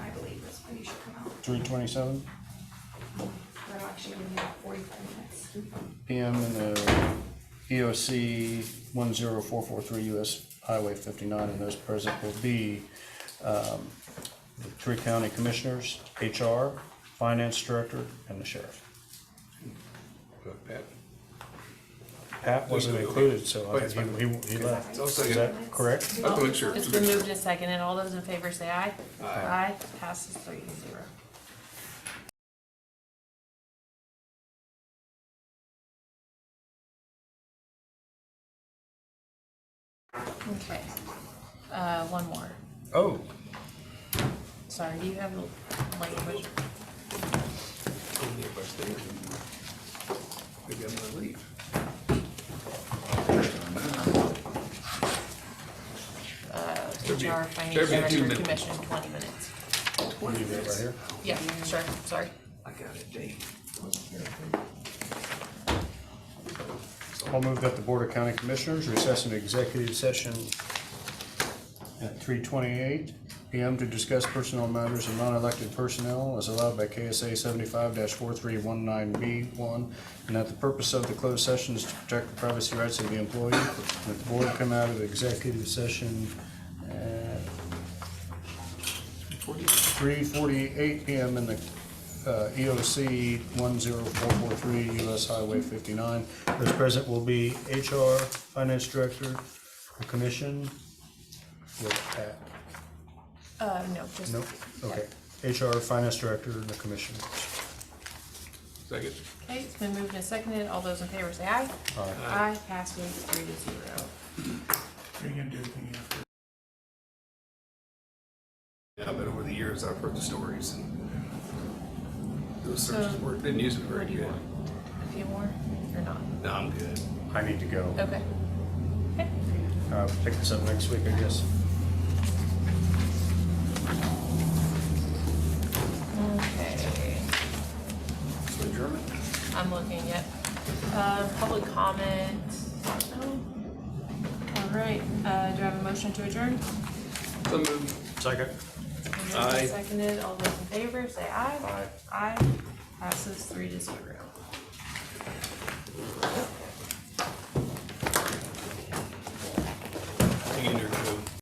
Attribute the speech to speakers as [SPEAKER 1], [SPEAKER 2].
[SPEAKER 1] three twenty-seven
[SPEAKER 2] That'll actually give you about forty-five minutes.
[SPEAKER 1] PM in the EOC one zero four four three US Highway fifty-nine, and those present will be, um, the three county commissioners, HR, finance director, and the sheriff.
[SPEAKER 3] Look, Pat,
[SPEAKER 1] Pat wasn't included, so I think he, he- he left.
[SPEAKER 3] I'll
[SPEAKER 1] Is
[SPEAKER 3] second.
[SPEAKER 1] that correct?
[SPEAKER 3] I'll make sure.
[SPEAKER 4] It's been moved and seconded. All those in favor say aye.
[SPEAKER 3] Aye.
[SPEAKER 4] Aye, passes three to zero. Okay, uh, one more.
[SPEAKER 1] Oh,
[SPEAKER 4] Sorry, do you have a language?
[SPEAKER 3] Only if I stay here. Maybe I'm gonna leave. There'd be-
[SPEAKER 4] HR,
[SPEAKER 3] there'd be two
[SPEAKER 4] Finance Director,
[SPEAKER 3] minutes.
[SPEAKER 4] Commission, twenty minutes.
[SPEAKER 1] we do that right here.
[SPEAKER 4] Yeah, sure, sorry.
[SPEAKER 3] I got a date.
[SPEAKER 1] I'll move that the Board of County Commissioners recess into executive session at three twenty-eight PM to discuss personnel matters of non-elected personnel as allowed by KSA seventy-five four three one nine B one, and that the purpose of the closed session is to protect the privacy rights of the employee, and that the board come out of executive session at three forty-eight PM in the uh, EOC one zero four four three US Highway fifty-nine. Those present will be HR, Finance Director, the Commission, with Pat.
[SPEAKER 4] Uh, no, just.
[SPEAKER 1] Nope, okay. HR, Finance Director, and the Commission.
[SPEAKER 3] Second.
[SPEAKER 4] Okay, it's been moved and seconded. All those in favor say aye.
[SPEAKER 1] Aye.
[SPEAKER 4] Aye, passes three to zero.
[SPEAKER 5] Are you gonna do anything after?
[SPEAKER 3] Yeah, but over the years, I've heard the stories and those
[SPEAKER 4] So,
[SPEAKER 3] searches were, didn't use it very
[SPEAKER 4] What do you
[SPEAKER 3] good.
[SPEAKER 4] want? A few more or not?
[SPEAKER 3] No, I'm good.
[SPEAKER 1] I need to go.
[SPEAKER 4] Okay. Okay.
[SPEAKER 1] Uh, Pick this up next week, I guess.
[SPEAKER 4] Okay.
[SPEAKER 3] So German?
[SPEAKER 4] I'm looking at, uh, public comment. No. All right, uh, do I have a motion to adjourn?
[SPEAKER 3] So moved.
[SPEAKER 1] Second.
[SPEAKER 4] Been moved and
[SPEAKER 3] Aye.
[SPEAKER 4] Seconded. All those in favor, say aye.
[SPEAKER 1] Aye.
[SPEAKER 4] Aye. Passes three to zero.